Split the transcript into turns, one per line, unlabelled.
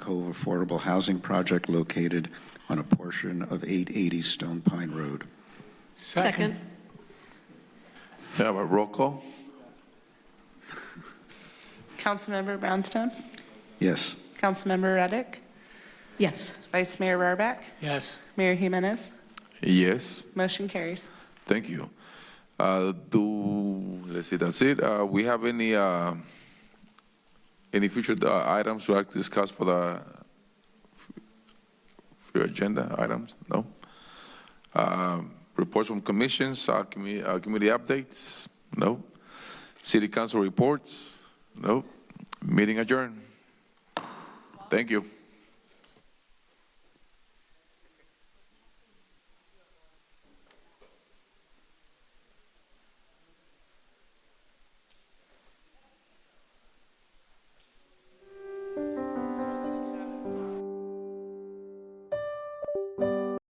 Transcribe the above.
Cove Affordable Housing Project located on a portion of 880 Stone Pine Road.
Second.
May I have a roll call?
Councilmember Brownstone,
Yes.
Councilmember Reddick,
Yes.
Vice Mayor Rarback,
Yes.
Mayor Jimenez,
Yes,
motion carries.
thank you. Uh, Do, let's see, that's it. Uh, We have any, uh, any future uh, items we like to discuss for the, for your agenda items? No? Um, Reports from commissions, uh, commu- uh, committee updates? No? City council reports? No? Meeting adjourned. Thank you.